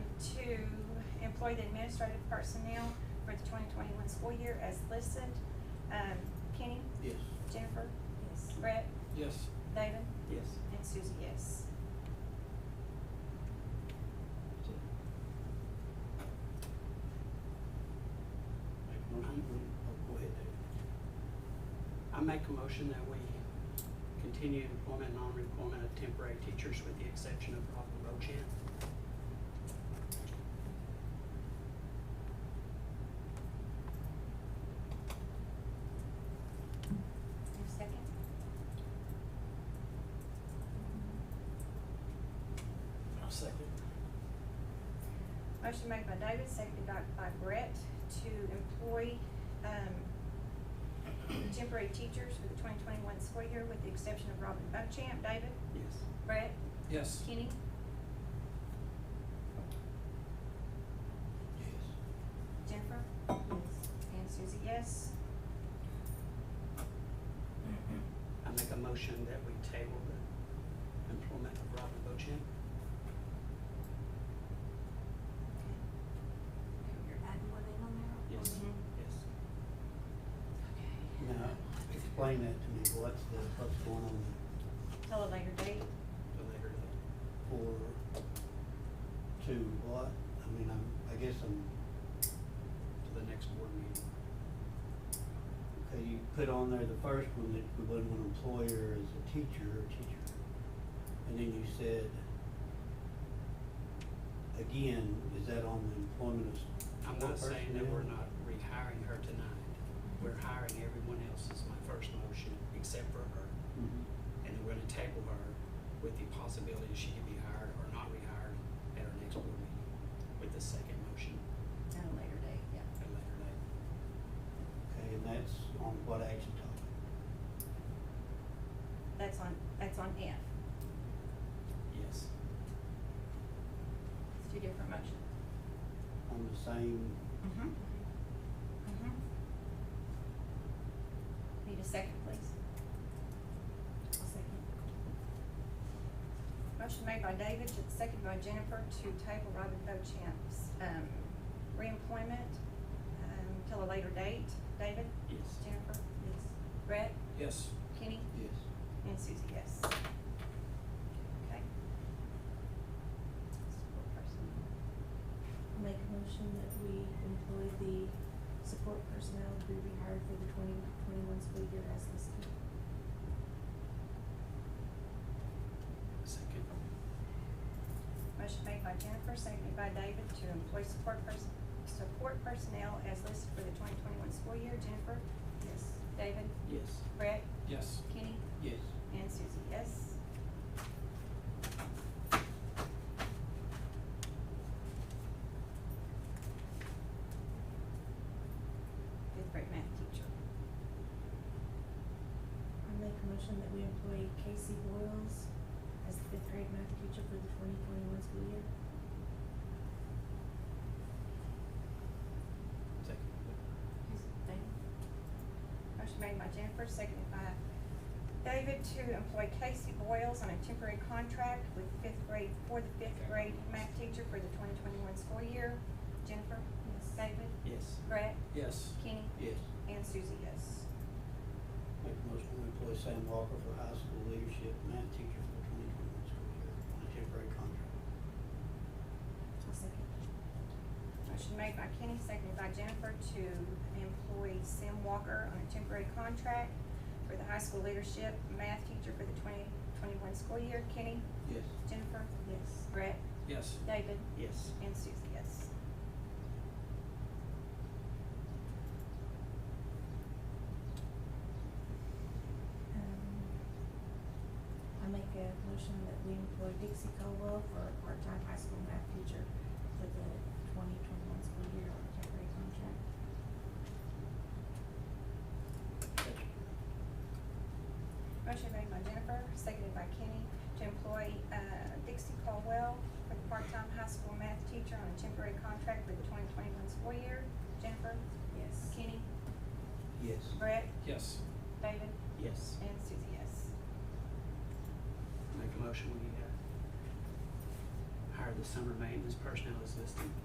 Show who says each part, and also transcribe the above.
Speaker 1: employ the administrative personnel for the twenty twenty-one school year as listed. Um, Kenny?
Speaker 2: Yes.
Speaker 1: Jennifer? Yes. Brett?
Speaker 2: Yes.
Speaker 1: David?
Speaker 2: Yes.
Speaker 1: And Susie, yes.
Speaker 2: Make a motion, oh, go ahead, David. I make a motion that we continue employment, and non-employment of temporary teachers with the exception of Robin Bochamp.
Speaker 1: Your second?
Speaker 2: I'll second.
Speaker 1: Motion made by David, seconded by, by Brett to employ, um, temporary teachers for the twenty twenty-one school year with the exception of Robin Buckchamp. David?
Speaker 2: Yes.
Speaker 1: Brett?
Speaker 2: Yes.
Speaker 1: Kenny?
Speaker 2: Yes.
Speaker 1: Jennifer? Yes. And Susie, yes.
Speaker 2: I make a motion that we table the employment of Robin Bochamp.
Speaker 3: You're adding one in on there?
Speaker 2: Yes.
Speaker 1: Mhm.
Speaker 2: Yes.
Speaker 3: Okay.
Speaker 4: Now, explain that to me, what's the, what's going on
Speaker 1: Till a later date.
Speaker 2: The later uh, date.
Speaker 4: for, to what? I mean, I'm, I guess I'm,
Speaker 2: to the next board meeting.
Speaker 4: okay, you put on there the first one that we wouldn't want employer as a teacher or teacher. And then you said, again, is that on the employment of?
Speaker 2: I'm not saying that we're not rehiring her tonight. We're hiring everyone else is my first motion, except for her.
Speaker 4: Mhm.
Speaker 2: And then we're gonna table her with the possibility she could be hired or not rehired at our next board meeting with the second motion
Speaker 3: At a later date, yeah.
Speaker 2: at a later date.
Speaker 4: Okay, and that's on what action topic?
Speaker 1: That's on, that's on F.
Speaker 2: Yes.
Speaker 1: It's two different motions.
Speaker 4: On the same,
Speaker 1: Mm-hmm. Mm-hmm. Need a second, please?
Speaker 3: I'll second.
Speaker 1: Motion made by David, ju- seconded by Jennifer to table Robin Bochamp's, um, reemployment, um, till a later date. David?
Speaker 2: Yes.
Speaker 1: Jennifer? Yes. Brett?
Speaker 2: Yes.
Speaker 1: Kenny?
Speaker 4: yes,
Speaker 1: And Susie, yes. Okay. Support person.
Speaker 5: Make a motion that we employ the support personnel to be rehired for the twenty twenty-one school year as listed.
Speaker 2: Second.
Speaker 1: Motion made by Jennifer, seconded by David to employ support person, support personnel as listed for the twenty twenty-one school year. Jennifer? Yes. David?
Speaker 2: Yes.
Speaker 1: Brett?
Speaker 2: Yes.
Speaker 1: Kenny?
Speaker 4: yes.
Speaker 1: And Susie, yes. Fifth grade math teacher.
Speaker 5: I make a motion that we employ Casey Boyles as the fifth grade math teacher for the twenty twenty-one school year.
Speaker 2: Second.
Speaker 1: Motion made by Jennifer, seconded by David to employ Casey Boyles on a temporary contract with fifth grade, for the fifth grade math teacher for the twenty twenty-one school year. Jennifer?
Speaker 5: Yes.
Speaker 1: David?
Speaker 2: Yes.
Speaker 1: Brett?
Speaker 2: Yes.
Speaker 1: Kenny?
Speaker 4: Yes.
Speaker 1: And Susie, yes.
Speaker 4: Make a motion to employ Sam Walker for high school leadership math teacher for twenty twenty-one school year on a temporary contract.
Speaker 5: I'll second.
Speaker 1: Motion made by Kenny, seconded by Jennifer to employ Sam Walker on a temporary contract for the high school leadership math teacher for the twenty twenty-one school year. Kenny?
Speaker 4: Yes.
Speaker 1: Jennifer?
Speaker 5: Yes.
Speaker 1: Brett?
Speaker 2: Yes.
Speaker 1: David?
Speaker 2: Yes.
Speaker 1: And Susie, yes.
Speaker 5: Um, I make a motion that we employ Dixie Caldwell for a part-time high school math teacher for the twenty twenty-one school year on a temporary contract.
Speaker 1: Motion made by Jennifer, seconded by Kenny, to employ uh, Dixie Caldwell for the part-time high school math teacher on a temporary contract for the twenty twenty-one school year. Jennifer?
Speaker 5: Yes.
Speaker 1: Kenny?
Speaker 4: Yes.
Speaker 1: Brett?
Speaker 2: Yes.
Speaker 1: David?
Speaker 2: Yes.
Speaker 1: And Susie, yes.
Speaker 2: Make a motion, we uh, hire the summer maintenance personnel as listed.